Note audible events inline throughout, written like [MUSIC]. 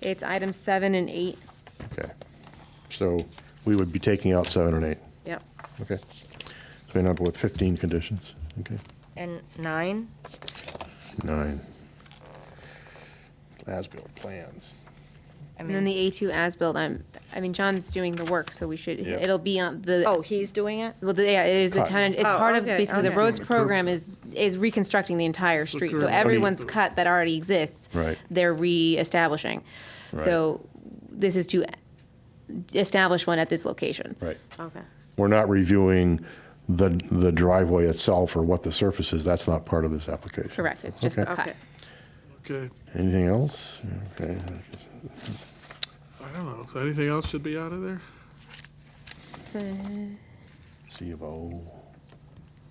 It's item seven and eight. Okay. So we would be taking out seven and eight. Yep. Okay. So we end up with 15 conditions. Okay. And nine? Nine. As-built plans. I And then mean, the A2 as-built, I'm, I mean, John's doing the work, so we should, Yeah. it'll be on the. oh, he's doing it? Well, the- yeah, it is the Cut. town, it's Oh, part of, okay, basically, the okay. roads program is, is reconstructing the entire street. So current- everyone's cut that already exists. Right. They're reestablishing. Right. So this is to establish one at this location. Right. Okay. We're not reviewing the, the driveway itself or what the surface is. That's not part of this application. Correct, it's just the Okay. cut. Okay. Okay, Anything else? Okay. I don't know, Is anything else should be out of there? So, C of O.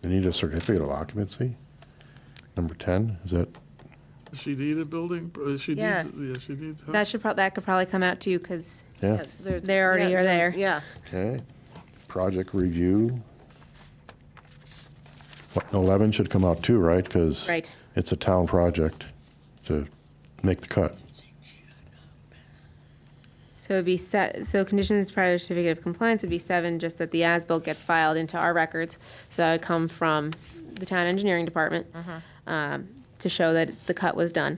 They need a certificate of occupancy. Number 10, is that? Does she need a building? Uh, She Yeah. needs, yeah, she needs help. That should prob, that could probably come out too, because Yeah. they already Yeah, are there. Yeah. Okay. Project review. What, 11 should come out too, right? Because Right. it's a town project to make the cut. So it'd be set, so conditions prior to certificate of compliance would be seven, just that the as-built gets filed into our records. So that would come from the town engineering department um, to show that the cut was done.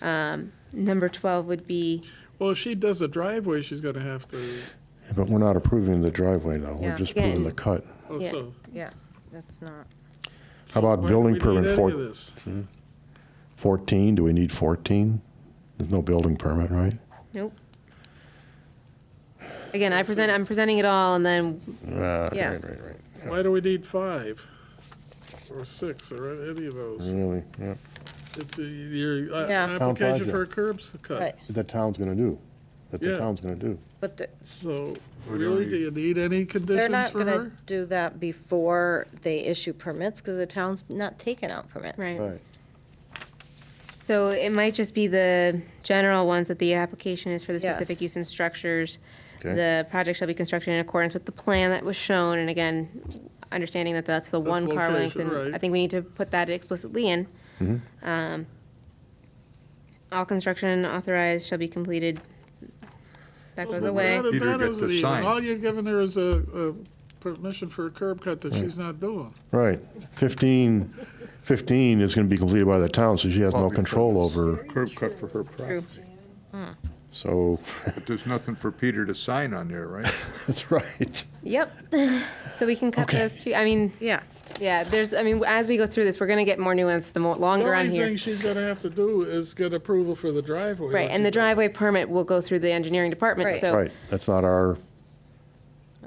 Um, Number 12 would be, Well, if she does a driveway, she's gonna have to, But we're not approving the driveway though. We're Yeah. just approving the Again. cut. oh, Yeah. so. Yeah, that's not, How about why do building we need permit any for- of this? 14, do we need 14? There's no building permit, right? nope. Again, I present, I'm presenting it all, and then, Uh, Yeah. Right, right, right. Why do we need five? Or six, or any of those? Really, yeah. It's uh, your uh, Yeah. Town application for a project. curbs right, cut. The town's gonna do, that the Yeah. town's gonna do. but the- So, really, do you need any they're conditions not for gonna her? do that before they issue permits, because the town's not taking out permits. right. Right. So it might just be the general ones that the application is for the Yes. specific use and structures. Okay. The project shall be constructed in accordance with the plan that was shown, and again, understanding that that's the That's one car length. location, and I right. think we need to put that explicitly in. Mm-hmm. Um, All construction authorized shall be completed. That goes Well, away. that- Peter that gets isn't a even- sign. All you're giving her is a, a permission for a curb cut that she's not doing. Right. 15, 15 is gonna be completed by the town, so she has no Probably control first. over, curb cut for her property. so, [LAUGHS] But there's nothing for Peter to sign on there, right? that's right. Yep. So we can cut Okay. those two, I mean, Yeah. yeah, there's, I mean, as we go through this, we're gonna get more nuanced the more, The longer on only here. thing she's gonna have to do is get approval for the driveway. Right, which and the is- driveway permit will go through the engineering department, Right. so, Right, that's not our,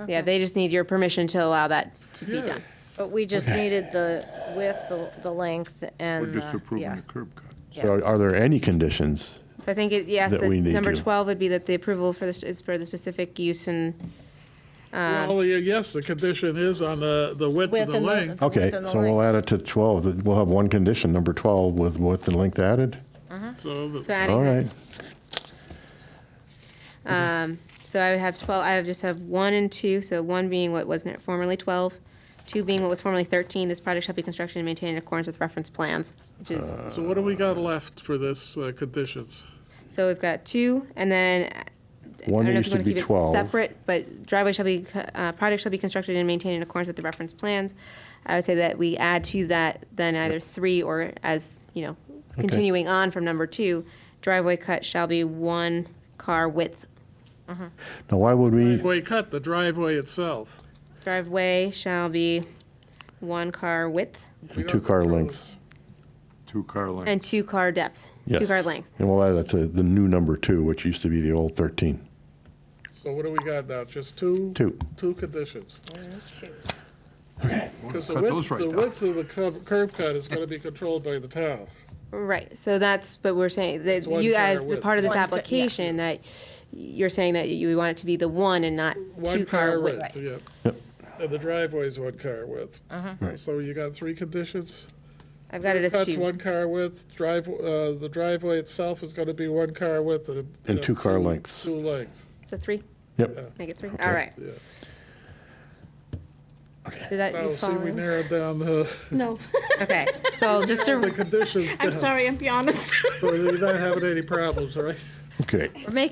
yeah, they just need your permission to allow that to be Yeah. done. But we just needed the width, the, the length, and. We're the- just approving yeah. the curb cut. so are there any conditions? So I think, it yes, That the we need number to- 12 would be that the approval for this is for the specific use and, um, Well, yeah, yes, the condition is on the, the width Width and the and the- length. Okay, Within the so we'll add it to 12, we'll have one condition, number 12, with width and length added? So, uh-huh. so the- All adding that. right, So I would have 12, I would just have 1 and 2, so 1 being what was formerly 12, 2 being what was formerly 13, this project shall be constructed and maintained in accordance with reference plans, which is, Uh. so what do we got left for this uh, conditions? so we've got 2, and then, uh, I one don't know if needs you to want to be keep it 12. separate, but driveway shall be, uh, project shall be constructed and maintained in accordance with the reference plans. I would say that we add to that then either 3 or as, you know, continuing on from number 2, driveway cut shall be 1 car width Now, why would we, Well, you cut the driveway itself. Driveway shall be one car width two-car length? Two car length. and two car depth, two Yes. car length. And we'll add that to the new number two, which used to be the old 13. So what do we got now? Just two? Two. Two conditions. Because the Cut width, those right the down. width of the curb, curb cut is gonna be controlled by the town. Right, so that's, but we're saying that one you, car as the width. part of this One car- yeah. application, that you're saying that you want it to be the one and not two One car car width. Uh-huh. width, yeah. And the driveway's one car width. So you got three conditions? I've got it as That's two. one car width, drive, uh, the driveway itself is gonna be one car width and. And two car lengths. Two lengths. So three, Yep, make it three, all right. Yeah. Did that, Oh, you see, we follow? narrowed down the, [LAUGHS] No. Okay, so just the to, conditions down, I'm sorry, I'm be honest. so you're not having any problems, right? okay. we're making